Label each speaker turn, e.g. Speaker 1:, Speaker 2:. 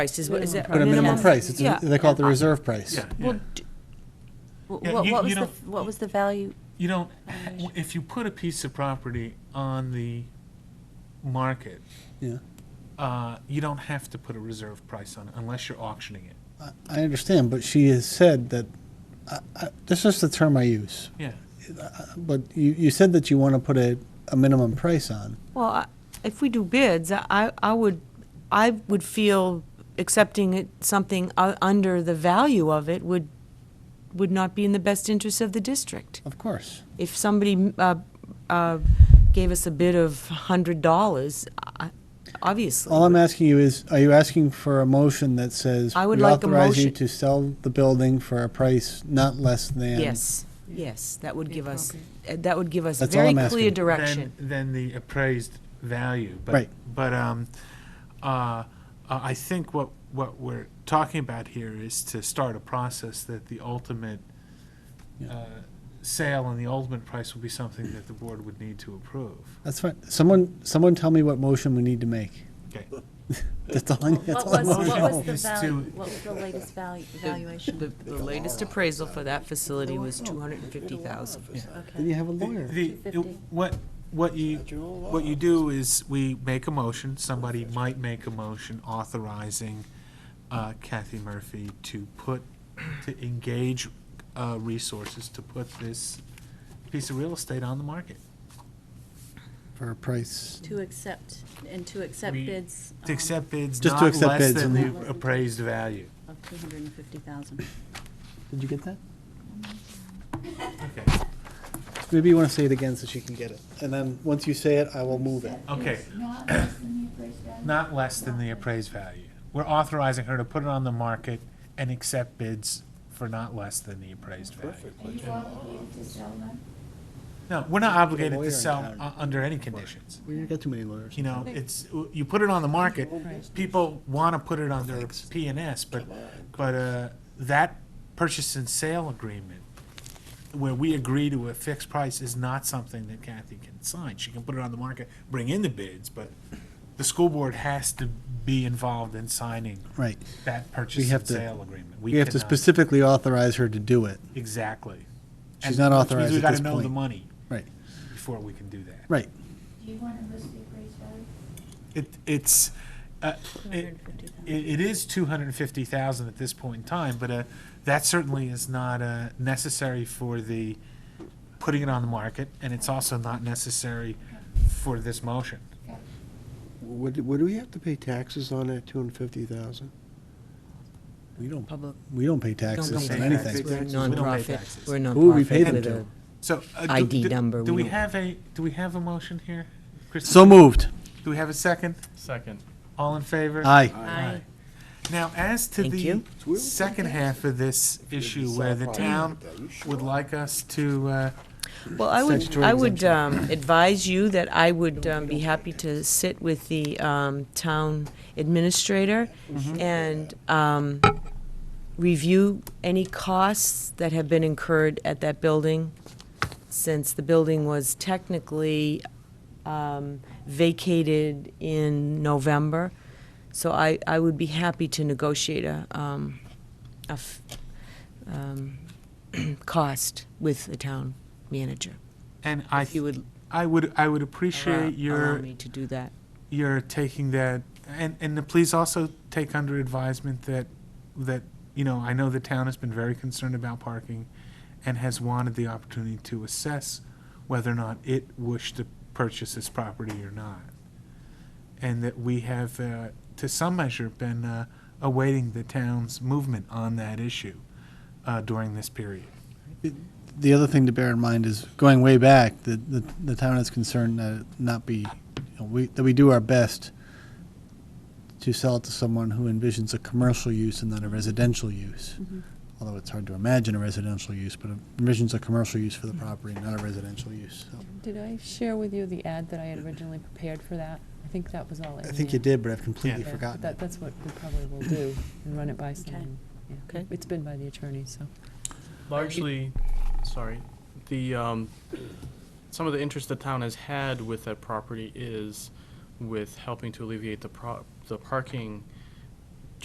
Speaker 1: price is, what is it?
Speaker 2: But a minimum
Speaker 3: Yeah.
Speaker 2: price, it's, a-
Speaker 1: Yeah.
Speaker 2: they call it the reserve price.
Speaker 4: Yeah, yeah.
Speaker 3: Well, d-
Speaker 4: Yeah,
Speaker 3: wh- what
Speaker 4: you-
Speaker 3: what
Speaker 4: you
Speaker 3: was the,
Speaker 4: don't-
Speaker 3: what was the value?
Speaker 4: You don't, if you put a piece of property on the market,
Speaker 2: Yeah,
Speaker 4: uh, you don't have to put a reserve price on it unless you're auctioning it.
Speaker 2: I- I understand, but she has said that, I- I- that's just the term I use.
Speaker 4: Yeah.
Speaker 2: But you, you said that you want to put a, a minimum price on.
Speaker 1: Well, I- if we do bids, I, I would, I would feel accepting it, something u- under the value of it would, would not be in the best interest of the district.
Speaker 2: Of course.
Speaker 1: If somebody uh, uh, gave us a bid of hundred dollars, obviously.
Speaker 2: All I'm asking you is, are you asking for a motion that says?
Speaker 1: I would
Speaker 2: we
Speaker 1: like a
Speaker 2: Authorize you
Speaker 1: motion-
Speaker 2: to sell the building for a price not less than?
Speaker 1: Yes, yes, that would give us, uh, that would give us
Speaker 2: That's all
Speaker 1: very
Speaker 2: I'm
Speaker 1: clear
Speaker 2: asking.
Speaker 1: direction.
Speaker 4: Than, than the appraised value. But,
Speaker 2: Right.
Speaker 4: But um, uh, uh, I think what, what we're talking about here is to start a process that the ultimate
Speaker 2: Yeah.
Speaker 4: uh, sale and the ultimate price will be something that the board would need to approve.
Speaker 2: That's fine. Someone, someone tell me what motion we need to make.
Speaker 4: Okay.
Speaker 2: That's all, I- that's
Speaker 3: What
Speaker 2: all I
Speaker 3: was,
Speaker 2: want to
Speaker 4: motion
Speaker 3: what was
Speaker 2: know.
Speaker 3: the
Speaker 4: is to-
Speaker 3: value, what was the latest value, valuation?
Speaker 1: The the latest appraisal for that facility was two hundred and fifty thousand.
Speaker 2: Then
Speaker 3: Okay.
Speaker 2: you have a
Speaker 4: The-
Speaker 2: lawyer.
Speaker 4: the-
Speaker 3: 250.
Speaker 4: What, what you, what you do is, we make a motion, somebody might make a motion authorizing uh, Kathy Murphy to put, to engage uh, resources to put this piece of real estate on the market.
Speaker 2: For a price.
Speaker 3: To accept, and to accept
Speaker 4: We-
Speaker 3: bids.
Speaker 4: To
Speaker 3: um,
Speaker 4: accept bids
Speaker 2: Just to
Speaker 4: not
Speaker 2: accept
Speaker 4: less
Speaker 2: bids
Speaker 4: than
Speaker 2: and-
Speaker 4: the appraised value.
Speaker 3: um, Of two hundred and fifty thousand.
Speaker 2: Did you get that?
Speaker 4: Okay,
Speaker 2: Maybe you want to say it again so she can get it. And then, once you say it, I will move it.
Speaker 4: Okay.
Speaker 5: It's Not less than the
Speaker 4: not less than the appraised
Speaker 5: appraised value?
Speaker 4: value. We're authorizing her to put it on the market and accept bids for not less than the appraised value.
Speaker 5: Are you obligated to sell them?
Speaker 4: No, we're not obligated
Speaker 2: lawyer
Speaker 4: to
Speaker 2: in
Speaker 4: sell
Speaker 2: town.
Speaker 4: uh, under any conditions.
Speaker 2: We ain't got too many lawyers.
Speaker 4: You know, it's, you put it on the market, people want to put it on their P and S, but, but uh, that purchase and sale agreement, where we agree to a fixed price, is not something that Kathy can sign. She can put it on the market, bring in the bids, but the school board has to be involved in signing
Speaker 2: Right.
Speaker 4: that
Speaker 2: We
Speaker 4: purchase
Speaker 2: have
Speaker 4: and
Speaker 2: to-
Speaker 4: sale agreement.
Speaker 2: We have to
Speaker 4: cannot-
Speaker 2: specifically authorize her to do it.
Speaker 4: Exactly.
Speaker 2: She's
Speaker 4: And
Speaker 2: not
Speaker 4: which means
Speaker 2: authorized at this
Speaker 4: We got to know the
Speaker 2: point.
Speaker 4: money
Speaker 2: Right,
Speaker 4: before we can do that.
Speaker 2: right.
Speaker 5: Do you want to list the appraised value?
Speaker 4: It, it's, uh, it, it it is two hundred and fifty thousand at this point in time, but, uh, that certainly is not, uh, necessary for the, putting it on the market, and it's also not necessary for this motion.
Speaker 6: What, do- what do we have to pay taxes on that two hundred fifty thousand?
Speaker 2: We don't,
Speaker 1: Public,
Speaker 2: we don't pay
Speaker 1: don't
Speaker 2: taxes
Speaker 1: pay
Speaker 2: on
Speaker 1: taxes,
Speaker 2: anything.
Speaker 1: we're a
Speaker 6: We don't
Speaker 4: pay
Speaker 1: nonprofit,
Speaker 4: taxes.
Speaker 1: we're a nonprofit.
Speaker 2: Who would we pay them
Speaker 1: with
Speaker 2: to?
Speaker 1: a-
Speaker 4: So. uh, do-
Speaker 1: ID
Speaker 4: do-
Speaker 1: number,
Speaker 4: Do
Speaker 1: we
Speaker 4: we
Speaker 1: don't-
Speaker 4: have a, do we have a motion here? Christine?
Speaker 2: So moved.
Speaker 4: Do we have a second?
Speaker 7: Second.
Speaker 4: All in favor?
Speaker 2: Aye.
Speaker 3: Aye.
Speaker 4: Now, as to
Speaker 1: Thank
Speaker 4: the
Speaker 1: you.
Speaker 4: second half of this issue where the town would like us to, uh,
Speaker 1: Well, I would,
Speaker 2: Statutory
Speaker 1: I would um, advise you that I would um, be happy to sit with the um, town administrator and um, review any costs that have been incurred at that building, since the building was technically um, vacated in November. So I, I would be happy to negotiate a, um, a f- um, cost with the town manager.
Speaker 4: and I,
Speaker 1: If you would
Speaker 4: I would, I would
Speaker 1: allow,
Speaker 4: appreciate
Speaker 1: allow
Speaker 4: your,
Speaker 1: me to do that.
Speaker 4: you're taking that, and, and to please also take under advisement that, that, you know, I know the town has been very concerned about parking and has wanted the opportunity to assess whether or not it wished to purchase this property or not. And that we have, uh, to some measure, been uh, awaiting the town's movement on that issue uh, during this period.
Speaker 2: The other thing to bear in mind is, going way back, the, the, the town is concerned that it not be, you know, we, that we do our best to sell it to someone who envisions a commercial use and not a residential use. Although it's hard to imagine a residential use, but envisions a commercial use for the property, not a residential use. so.
Speaker 8: Did I share with you the ad that I had originally prepared for that? I think that was all in
Speaker 2: I think you
Speaker 8: there.
Speaker 2: did, but I've completely
Speaker 4: Yeah.
Speaker 8: Yeah, but
Speaker 2: forgotten.
Speaker 8: That, that's what we probably will do, and run it by
Speaker 3: Okay.
Speaker 8: someone. Yeah.
Speaker 1: Okay.
Speaker 8: It's been by the attorney, so.
Speaker 7: Largely, sorry, the, um, some of the interest the town has had with that property is with helping to alleviate the pro, the parking